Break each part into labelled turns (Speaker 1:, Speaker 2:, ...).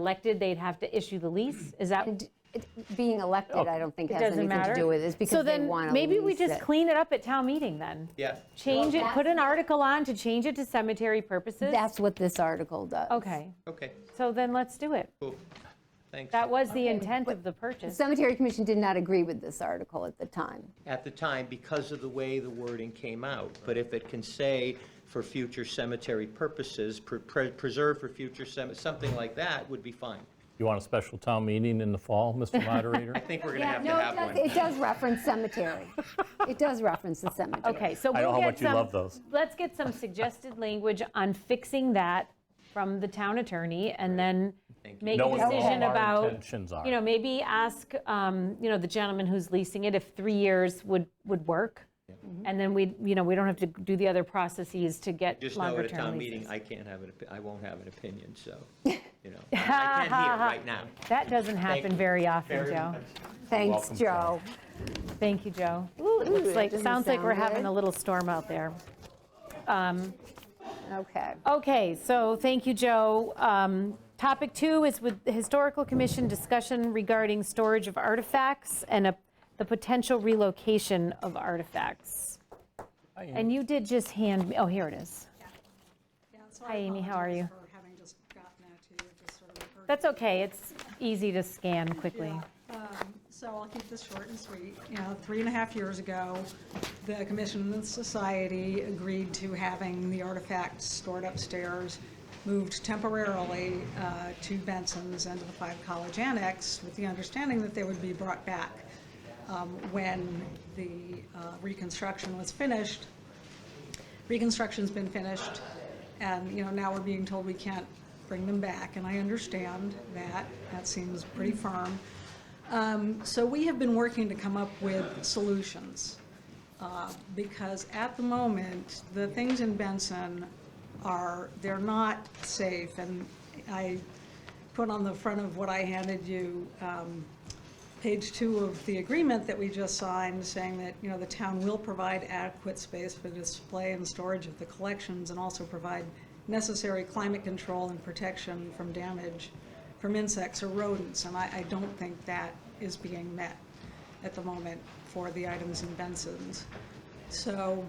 Speaker 1: elected, they'd have to issue the lease? Is that,
Speaker 2: And Mm-hmm. it- being elected, I don't think has
Speaker 1: doesn't
Speaker 2: anything
Speaker 1: matter?
Speaker 2: to do with it. It's
Speaker 1: So
Speaker 2: because they
Speaker 1: then,
Speaker 2: want to
Speaker 1: maybe we just clean it up at town meeting then?
Speaker 3: Yeah.
Speaker 1: Change it, put an article on to change it to cemetery purposes?
Speaker 2: That's what this article does.
Speaker 1: Okay,
Speaker 3: Okay,
Speaker 1: so then let's do it.
Speaker 3: cool. Thanks.
Speaker 1: That was the intent of the purchase.
Speaker 2: Cemetery Commission did not agree with this article at the time.
Speaker 3: At the time, because of the way the wording came out, but if it can say for future cemetery purposes, pre- pre- preserve for future cemetery, something like that would be fine.
Speaker 4: You want a special town meeting in the fall, Mr. Moderator?
Speaker 3: I think we're going to have to have
Speaker 2: No,
Speaker 3: one.
Speaker 2: it does- it does reference cemetery. It does reference the cemetery.
Speaker 1: Okay, so
Speaker 4: I know
Speaker 1: we'll
Speaker 4: how
Speaker 1: get
Speaker 4: much you
Speaker 1: some-
Speaker 4: love those.
Speaker 1: Let's get some suggested language on fixing that from the town attorney and then make
Speaker 4: No
Speaker 1: a
Speaker 4: one knows
Speaker 1: decision
Speaker 4: what our
Speaker 1: about,
Speaker 4: intentions are.
Speaker 1: you know, maybe ask, um, you know, the gentleman who's leasing it if three years would, would work.
Speaker 3: Mm-hmm.
Speaker 1: And then we, you know, we don't have to do the other processes to get
Speaker 3: Just know at
Speaker 1: longer
Speaker 3: a town
Speaker 1: term
Speaker 3: meeting,
Speaker 1: leases.
Speaker 3: I can't have an, opi- I won't have an opinion, so, you know. I can't hear right now.
Speaker 1: That doesn't happen
Speaker 3: you.
Speaker 1: very often,
Speaker 3: Very
Speaker 1: Joe.
Speaker 3: much.
Speaker 2: Thanks,
Speaker 4: welcome,
Speaker 2: Joe.
Speaker 1: Thank you, Joe.
Speaker 2: It's
Speaker 1: Like, sounds like we're having a little storm out there.
Speaker 2: Okay.
Speaker 1: Okay, so thank you, Joe. Um, Topic two is with the Historical Commission discussion regarding storage of artifacts and a- the potential relocation of artifacts. And you did just hand, me oh, here it is.
Speaker 5: Yeah, so
Speaker 1: Hi,
Speaker 5: I
Speaker 1: Amy, how are
Speaker 5: apologize
Speaker 1: you?
Speaker 5: for having just gotten that to you, just sort of referred
Speaker 1: That's okay, it's easy to scan quickly.
Speaker 5: so I'll keep this short and sweet. You know, three and a half years ago, the Commission and the Society agreed to having the artifacts stored upstairs, moved temporarily uh, to Benson's and to the Five College Annex with the understanding that they would be brought back um, when the uh, reconstruction was finished. Reconstruction's been finished, and, you know, now we're being told we can't bring them back, and I understand that. That seems pretty firm. Um, So we have been working to come up with solutions, uh, because at the moment, the things in Benson are, they're not safe, and I put on the front of what I handed you, um, page two of the agreement that we just signed, saying that, you know, the town will provide adequate space for display and storage of the collections, and also provide necessary climate control and protection from damage from insects or rodents, and I, I don't think that is being met at the moment for the items in Benson's. So,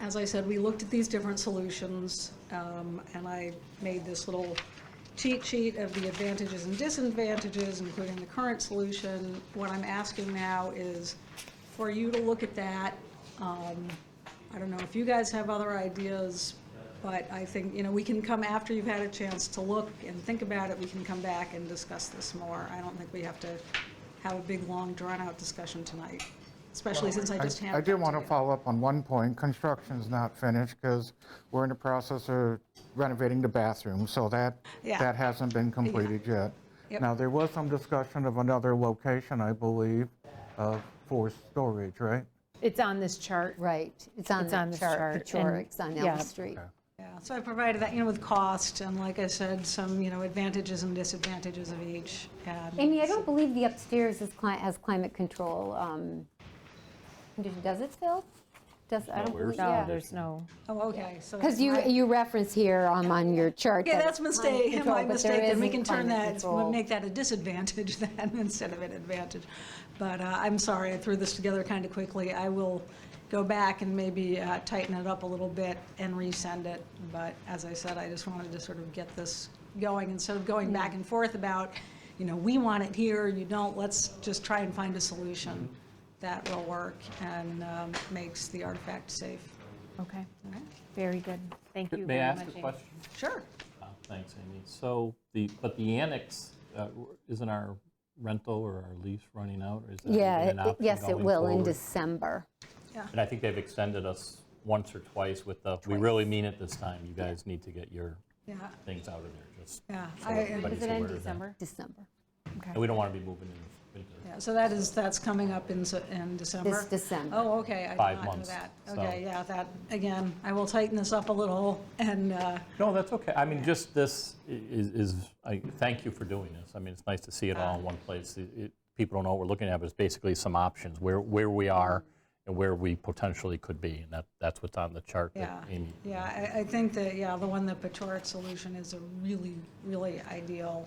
Speaker 5: as I said, we looked at these different solutions, um, and I made this little cheat sheet of the advantages and disadvantages, including the current solution. What I'm asking now is for you to look at that. Um, I don't know if you guys have other ideas, but I think, you know, we can come after you've had a chance to look and think about it, we can come back and discuss this more. I don't think we have to have a big, long, drawn-out discussion tonight, especially since I
Speaker 6: I-
Speaker 5: just handed
Speaker 6: I
Speaker 5: it to you.
Speaker 6: do want to follow up on one point. Construction's not finished because we're in the process of renovating the bathroom, so that,
Speaker 5: Yeah.
Speaker 6: that hasn't been completed yet.
Speaker 5: Yep.
Speaker 6: Now, there was some discussion of another location, I believe, uh, for storage, right?
Speaker 1: It's on this chart.
Speaker 2: Right. It's on
Speaker 1: It's on
Speaker 2: the
Speaker 1: this
Speaker 2: chart.
Speaker 1: chart, and-
Speaker 2: Pechorik's on
Speaker 1: yeah.
Speaker 2: Elm Street.
Speaker 5: Yeah, so I provided that, you know, with cost, and like I said, some, you know, advantages and disadvantages of each. and-
Speaker 2: Amy, I don't believe the upstairs is, cli- has climate control. um, condition. Does it, Phil? Does, I don't believe,
Speaker 1: No,
Speaker 2: yeah.
Speaker 1: there's no,
Speaker 5: Oh, okay, so.
Speaker 2: Because you,
Speaker 5: Right.
Speaker 2: you reference here um, on your chart.
Speaker 5: Yeah,
Speaker 2: that
Speaker 5: that's
Speaker 2: it's climate
Speaker 5: mistake,
Speaker 2: control,
Speaker 5: my
Speaker 2: but there
Speaker 5: mistake, then we
Speaker 2: isn't
Speaker 5: can turn
Speaker 2: climate
Speaker 5: that,
Speaker 2: control.
Speaker 5: make that a disadvantage then, instead of an advantage. But uh, I'm sorry, I threw this together kind of quickly. I will go back and maybe uh, tighten it up a little bit and resend it. But as I said, I just wanted to sort of get this going, instead of going back and forth about, you know, we want it here, you don't, let's just try and find a solution
Speaker 2: Mm-hmm.
Speaker 5: that will work and um, makes the artifact safe.
Speaker 1: okay, very good. Thank you
Speaker 4: May
Speaker 1: very
Speaker 4: I ask
Speaker 1: much.
Speaker 4: a
Speaker 1: Amy.
Speaker 4: question?
Speaker 5: Sure.
Speaker 4: Uh, Thanks, Amy. So the, but the annex, uh, isn't our rental or our lease running out? or is that even
Speaker 2: Yeah,
Speaker 4: an
Speaker 2: it-
Speaker 4: option
Speaker 2: yes, it
Speaker 4: going
Speaker 2: will in
Speaker 4: forward?
Speaker 2: December.
Speaker 4: And I think they've extended us once or twice with the, we really mean it this time. You guys need to get your
Speaker 5: Yeah,
Speaker 4: things out of there, just.
Speaker 5: yeah.
Speaker 4: so
Speaker 5: I- uh,
Speaker 4: everybody's
Speaker 1: Is it in
Speaker 4: aware of that.
Speaker 1: December?
Speaker 2: December.
Speaker 4: And we don't want to be moving in winter.
Speaker 5: Yeah, so that is, that's coming up in, Se- in December?
Speaker 2: This December.
Speaker 5: Oh, okay, I did
Speaker 4: Five
Speaker 5: not know
Speaker 4: months,
Speaker 5: that.
Speaker 4: so-
Speaker 5: Okay, yeah, that, again, I will tighten this up a little, and, uh,
Speaker 4: No, that's okay. I mean, just this i- is, is- I thank you for doing this. I mean, it's nice to see it all in one place. It- it- People don't know what we're looking at, but it's basically some options, where, where we are and where we potentially could be, and that, that's what's on the chart
Speaker 5: Yeah,
Speaker 4: that Amy
Speaker 5: yeah, I, I think that, yeah, the one, the Pachoric solution is a really, really ideal